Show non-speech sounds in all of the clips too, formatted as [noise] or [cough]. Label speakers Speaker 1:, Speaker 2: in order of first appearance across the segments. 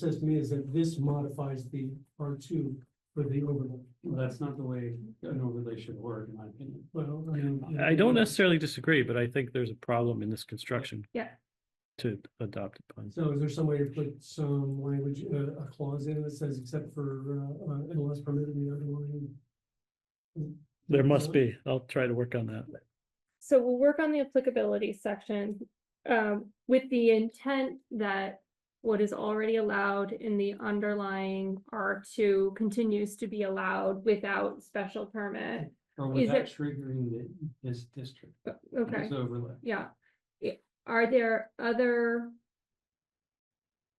Speaker 1: says to me is that this modifies the R two for the overlay.
Speaker 2: Well, that's not the way an overlay should work, in my opinion.
Speaker 1: Well, I mean. you know,
Speaker 3: I don't necessarily disagree, but I think there's a problem in this construction.
Speaker 4: Yeah.
Speaker 3: To adopt it. upon.
Speaker 1: So is there some way to put some language, uh, a clause in that says except for, uh, uh, unless permitted in the underlying?
Speaker 3: There must be. I'll try to work on that.
Speaker 4: So we'll work on the applicability section, um, with the intent that what is already allowed in the underlying R two continues to be allowed without special permit.
Speaker 2: Or
Speaker 4: Is
Speaker 2: without
Speaker 4: it-
Speaker 2: triggering the, this district,
Speaker 4: Okay.
Speaker 2: this overlay.
Speaker 4: Yeah, I- are there other?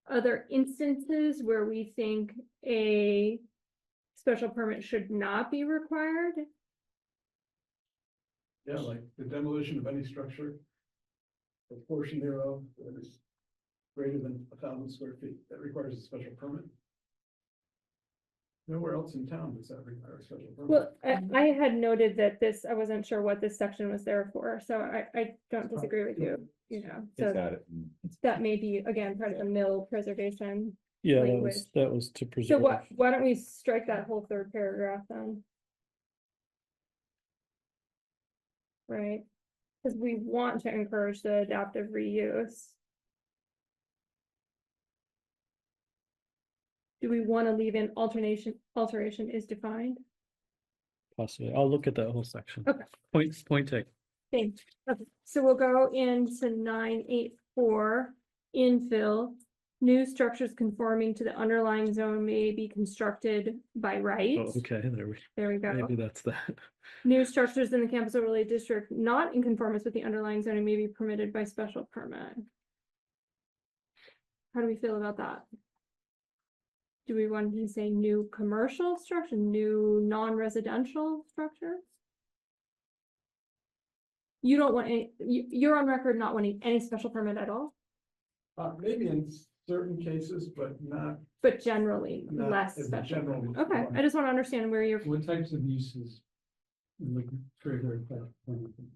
Speaker 4: Other instances where we think a special permit should not be required?
Speaker 5: Yeah, like the demolition of any structure. A portion thereof that is greater than a thousand square feet, that requires a special permit. Nowhere else in town does that require a special permit.
Speaker 4: Well, I, I had noted that this, I wasn't sure what this section was there for, so I, I don't disagree with you, you know,
Speaker 6: It's
Speaker 4: so
Speaker 6: got it.
Speaker 4: that may be, again, part of the mill preservation.
Speaker 3: Yeah, that
Speaker 4: Language.
Speaker 3: was, that was to
Speaker 4: So
Speaker 3: preserve.
Speaker 4: what, why don't we strike that whole third paragraph then? Right, because we want to encourage the adaptive reuse. Do we want to leave in alternation, alteration is defined?
Speaker 3: Possibly. I'll look at that whole section.
Speaker 4: Okay.
Speaker 3: Point, point taken.
Speaker 4: Thanks. Okay, so we'll go into nine eight four, infill. New structures conforming to the underlying zone may be constructed by right.
Speaker 3: Oh, Okay, there we,
Speaker 4: There we go.
Speaker 3: maybe that's that.
Speaker 4: New structures in the campus overlay district not in conformance with the underlying zoning may be permitted by special permit. How do we feel about that? Do we want to say new commercial structure, new non-residential structure? You don't want any, you, you're on record not wanting any special permit at all,
Speaker 5: Uh, maybe in certain cases, but not,
Speaker 4: but generally
Speaker 5: not
Speaker 4: less
Speaker 5: as a
Speaker 4: special.
Speaker 5: general.
Speaker 4: Okay, I just want to understand where you're,
Speaker 2: What types of uses would trigger that? kind of thing?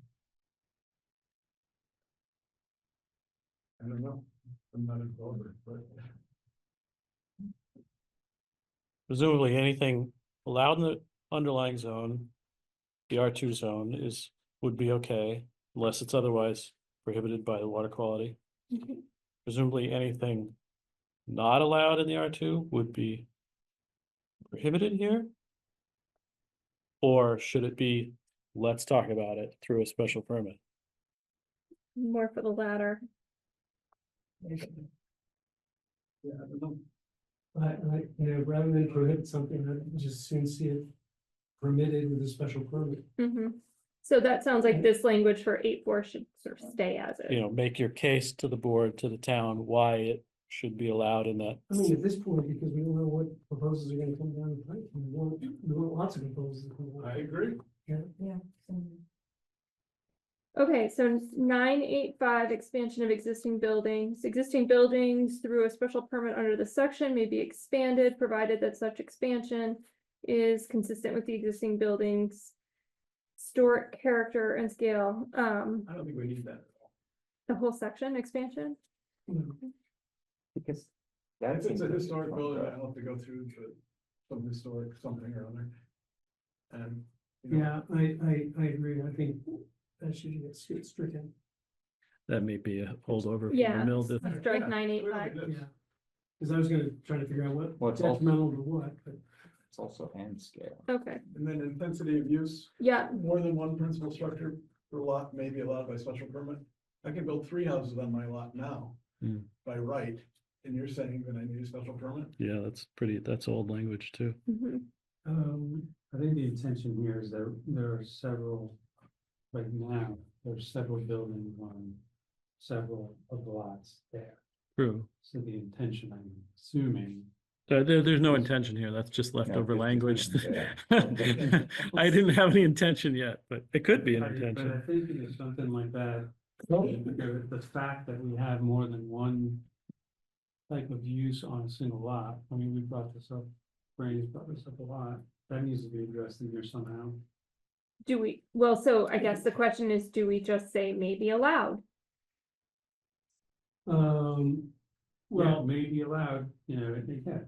Speaker 5: I don't know, I'm not involved, but
Speaker 3: Presumably anything allowed in the underlying zone, the R two zone is, would be okay unless it's otherwise prohibited by the water quality.
Speaker 5: Mm-hmm.
Speaker 3: Presumably anything not allowed in the R two would be prohibited here? Or should it be, let's talk about it through a special permit?
Speaker 4: more for the latter.
Speaker 5: yeah, I don't know.
Speaker 1: I, I, you know, rather than prohibit something, I'd just soon see it permitted with a special permit.
Speaker 4: Mhm. So that sounds like this language for eight four should sort of stay as
Speaker 3: You
Speaker 4: it.
Speaker 3: know, make your case to the board, to the town, why it should be allowed in that.
Speaker 1: I mean, at this point, because we don't know what proposals are gonna come down the pipe, we want, we want lots of proposals. to come down.
Speaker 5: I agree.
Speaker 4: Okay, so nine eight five, expansion of existing buildings. Existing buildings through a special permit under the section may be expanded, provided that such expansion is consistent with the existing buildings. Historic character and scale, um,
Speaker 5: I don't think we need that.
Speaker 4: the whole section expansion.
Speaker 6: Because. that
Speaker 5: If it's
Speaker 6: seems
Speaker 5: a
Speaker 6: like-
Speaker 5: historic building, I'll have to go through to some historic something or other. And. you know,
Speaker 1: Yeah, I, I, I agree, I think that should get stri- stricken,
Speaker 3: That may be a holdover. from the
Speaker 4: Yeah.
Speaker 3: mill dis-
Speaker 4: Strike
Speaker 5: Yeah,
Speaker 4: nine eight
Speaker 5: clearly
Speaker 4: five.
Speaker 5: this-
Speaker 1: yeah. Cause I was gonna try to figure out
Speaker 6: Well,
Speaker 1: what
Speaker 6: it's also-
Speaker 1: detrimental to what, but
Speaker 6: It's also hand scale.
Speaker 4: Okay,
Speaker 5: And then intensity of use,
Speaker 4: yeah,
Speaker 5: more than one principal structure per lot may be allowed by special permit. I can build three houses on my lot now
Speaker 3: Hmm.
Speaker 5: by right, and you're saying that I need a special permit?
Speaker 3: Yeah, that's pretty, that's old language too.
Speaker 4: mhm,
Speaker 2: Um, I think the intention here is that there are several, right now, there's several buildings on several of the lots there.
Speaker 3: True.
Speaker 2: So the intention, I'm assuming,
Speaker 3: Uh, there, there's no intention here. That's just leftover
Speaker 6: it's just
Speaker 3: language.
Speaker 6: an
Speaker 3: [laughs]
Speaker 6: idea.
Speaker 3: I didn't have any intention yet, but it could be an
Speaker 2: I- But I
Speaker 3: intention.
Speaker 2: think if it's something like that, the the fact that we have more than one type of use on a single lot, I mean, we brought this up, Brandy's brought this up a lot, that needs to be addressed in here somehow.
Speaker 4: do we, well, so I guess the question is, do we just say may be allowed?
Speaker 1: Um,
Speaker 2: Uh, well, may be allowed, you know, if they can.